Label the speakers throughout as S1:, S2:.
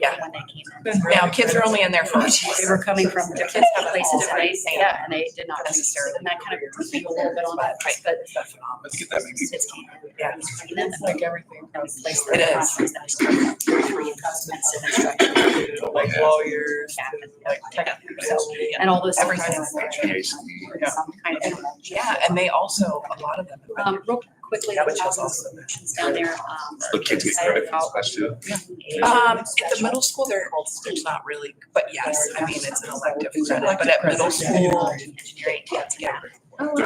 S1: Yeah.
S2: when they came in.
S1: Now, kids are only in there for.
S2: They were coming from
S1: Kids
S2: different
S1: have
S2: places,
S1: places,
S2: and
S1: right?
S2: they, yeah, and they did not necessarily,
S1: Necessarily.
S2: and that kind of puts me a little bit on that, but.
S3: Let's get that maybe.
S2: It's-
S1: Yeah.
S2: And then
S4: like everything
S2: I
S4: from
S2: would place
S1: It
S2: the
S1: is.
S2: conference that I started through adjustments and instruction.
S4: like lawyers,
S2: Back and
S4: like
S2: forth, tech, so, And all those.
S1: Everything.
S2: things that I learned, um, Some kind of.
S1: Yeah, and they also, a lot of them.
S2: Um, real quickly,
S1: Yeah,
S2: the
S1: which is also-
S2: options down there, um.
S3: The kids get credit for this class too.
S1: Um, at the middle school, they're, it's not really, but yes, I mean, it's an elective credit, but at middle school,
S2: Engineering, yeah.
S1: yeah.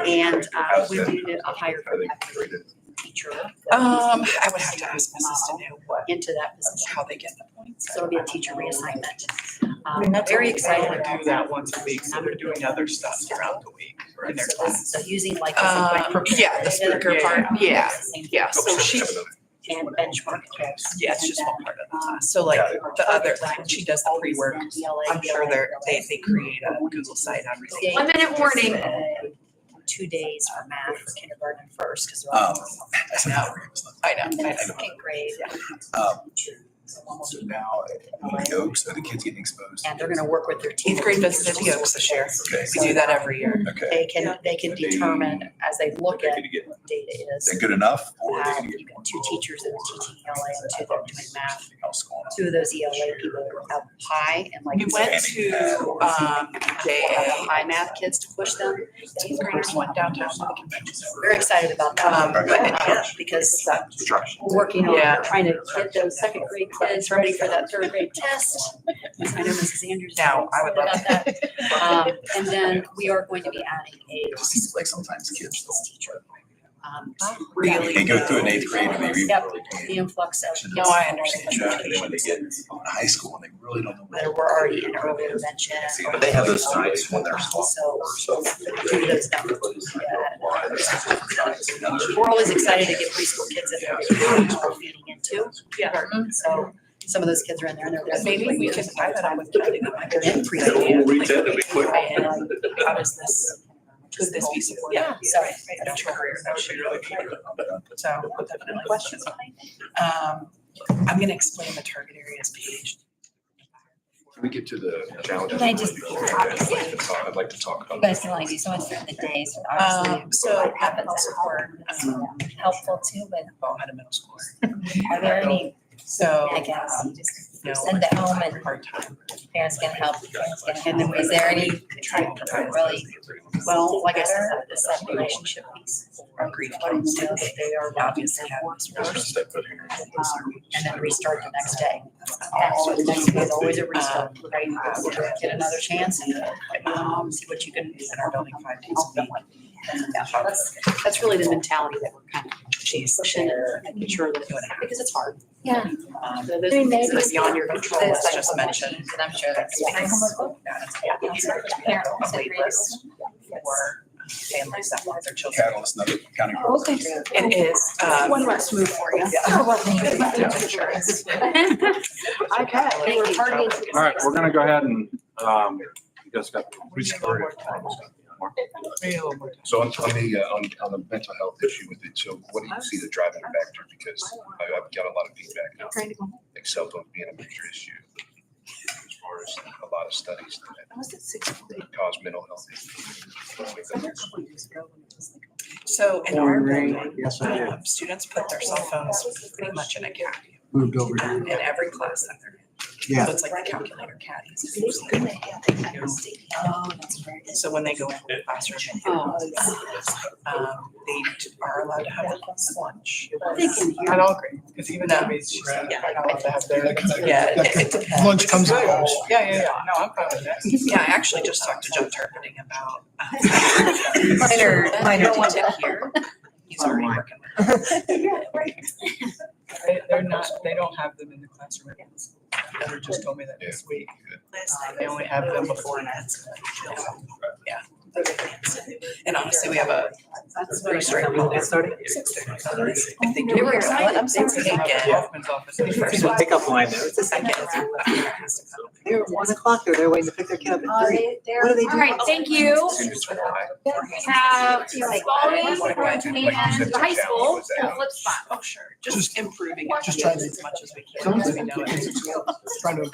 S2: And uh, we needed a higher
S3: I think they did.
S2: teacher
S1: Um, I would have to ask Mrs. to know what,
S2: into that position.
S1: how they get the points.
S2: So it'll be a teacher reassignment.
S4: I mean,
S2: Um,
S4: that's
S2: Very
S4: what they
S2: excited
S4: only
S2: about
S4: Do
S2: that.
S4: that once a week, so they're doing other stuff throughout the week in their
S2: So
S4: class.
S2: this- So using like. this
S1: Um,
S2: like-
S1: yeah, the speaker part, yeah, yeah, so she,
S2: And benchmark.
S1: yeah, it's just one part of the class. So like the other, like when she does the pre-work, I'm sure they're, they, they create a Google site on everything.
S2: One minute warning. Two days for math for kindergarten first, because they're all.
S3: Oh.
S1: I know, I know,
S2: And
S1: I
S2: then
S1: know.
S2: second grade.
S3: Um,
S2: So
S3: So now, uh, the Oaks, are the kids getting exposed?
S2: And they're gonna work with their team.
S1: Eighth grade visited the Oaks this year.
S3: Okay,
S1: We do that every year.
S3: okay.
S2: They can, they can determine as they look
S3: They're
S2: at
S3: gonna get, is
S2: data is,
S3: that good enough? Or are they
S2: um,
S3: gonna get
S2: you've
S3: more
S2: got two
S3: involved,
S2: teachers that are
S3: or
S2: teaching ELA and two that are doing math.
S3: something else going on?
S2: Two of those ELA people that were up high and like.
S1: We went to, um,
S2: Have
S1: JA.
S2: high math kids to push them.
S1: Eighth graders went downtown to the convention center.
S2: Very excited about
S1: Um,
S2: that,
S1: but yeah,
S2: because
S3: Instruction.
S2: we're working
S1: Yeah.
S2: on trying to get those second grade kids ready for that third grade test. I know Mrs. Andrews.
S1: Now, I would love
S2: about that. Um, and then we are going to be adding a
S3: It just seems like sometimes kids
S2: science teacher. Um,
S1: really.
S3: They go through an eighth grade and they read.
S2: Yep.
S3: really good.
S2: the influx of.
S1: No, I understand.
S3: Yeah, And then when they get on high school and they really don't know. what
S2: Whether we're already in early intervention.
S3: See,
S2: or- Um,
S3: But they have those signs when they're small.
S2: So,
S3: So.
S2: do those down.
S3: "Oh,
S2: We're always excited to get preschool kids in there, because we're feeding into.
S1: Yeah.
S2: So some of those kids are in there and they're. there.
S1: Maybe we can tie that on with Kelly. that might be-
S2: And
S1: Like,
S2: preschool.
S5: We'll reach out to be quick.
S1: and, like, How does this, could this be supported?
S2: Yeah, sorry.
S1: I don't know. That would be really cool. So I'll definitely questions. Um, I'm gonna explain the target areas page.
S3: Can we get to the challenges?
S6: Can I just-
S3: I'd like to talk
S6: You
S3: about.
S6: guys can only do so much during the day, so obviously
S1: Um, so-
S6: what happens at home is
S2: um,
S6: helpful too, but
S1: Ball had a middle schooler.
S6: are there any,
S1: So.
S6: I guess,
S2: um,
S6: you
S1: No.
S6: just send it home and
S1: Hard time.
S6: parents can help, parents
S2: And
S6: can
S2: then
S6: help.
S2: we-
S6: Is there any
S1: Trying to tie
S6: really
S2: Well, like I said,
S6: better,
S2: the
S6: is that
S2: second relationship.
S6: relationship piece?
S1: Our grief
S2: What it
S1: comes
S2: is, they are obviously
S1: Obviously,
S2: at
S1: had
S2: work
S1: this
S2: first,
S1: first.
S2: um, and then restart the next day. Actually, the next day is always a restart, right? So Get another chance and, um, see what you can.
S1: In our building five days a week.
S2: That's, that's really the mentality that we're kind of pushing and making sure that, because it's hard.
S6: Yeah.
S1: Um,
S2: Uh, Those things that are beyond your control,
S1: It's
S2: it's
S1: like-
S2: just mentioned.
S6: And I'm sure that's.
S1: For families that want their children.
S3: Catalyst, another county.
S6: Oh, Okay.
S1: It is, um.
S2: One last move for you.
S1: Okay.
S5: All right, we're gonna go ahead and, um, you guys got. we started.
S3: So on, on the, uh, on, on the mental health issue with it, so what do you see the driving factor? Because I- I've got a lot of feedback now. Excel phone being a major issue as far as a lot of studies that cause mental health issues.
S1: So in our building,
S7: Oh, Yes, I did.
S1: um, students put their cell phones pretty much in a caddy
S7: Moved over here.
S1: in every class that they're in.
S7: Yeah.
S1: So it's like the calculator caddies. So when they go into the classroom. and do
S2: Oh.
S1: this, um, They are allowed to have lunch.
S2: They can hear.
S1: At all grades. Because even that means she's. Yeah, it it depends.
S7: Lunch
S1: It's
S7: comes
S1: good.
S7: out.
S1: Yeah, yeah, yeah, no, I'm fine with that. Yeah, I actually just talked to Joe Turpinning about. um,
S6: Minor, minor
S1: No one
S6: detail.
S1: here. He's already working. with it. They, they're not, they don't have them in the classroom at the school. Heather just told me that this week. Uh, They only have them before and after. Yeah. And honestly, we have a
S2: That's
S1: pretty
S2: very
S1: straight.
S2: strange.
S1: rule. Six thirty. If they do.
S2: They were
S1: it,
S2: excited. I'm
S1: It's
S2: sorry.
S1: taken. Hoffman's office. The first one.
S7: Pickup line there.
S1: It's the second.
S7: They're at one o'clock, they're there waiting to pick their kid up at three. What do they do?
S8: All right, thank you. We have Ballroom and the high school, the flip spot.
S1: Oh, sure, just improving it
S7: Just trying to-
S1: as much as we can. as we know it.
S7: Trying to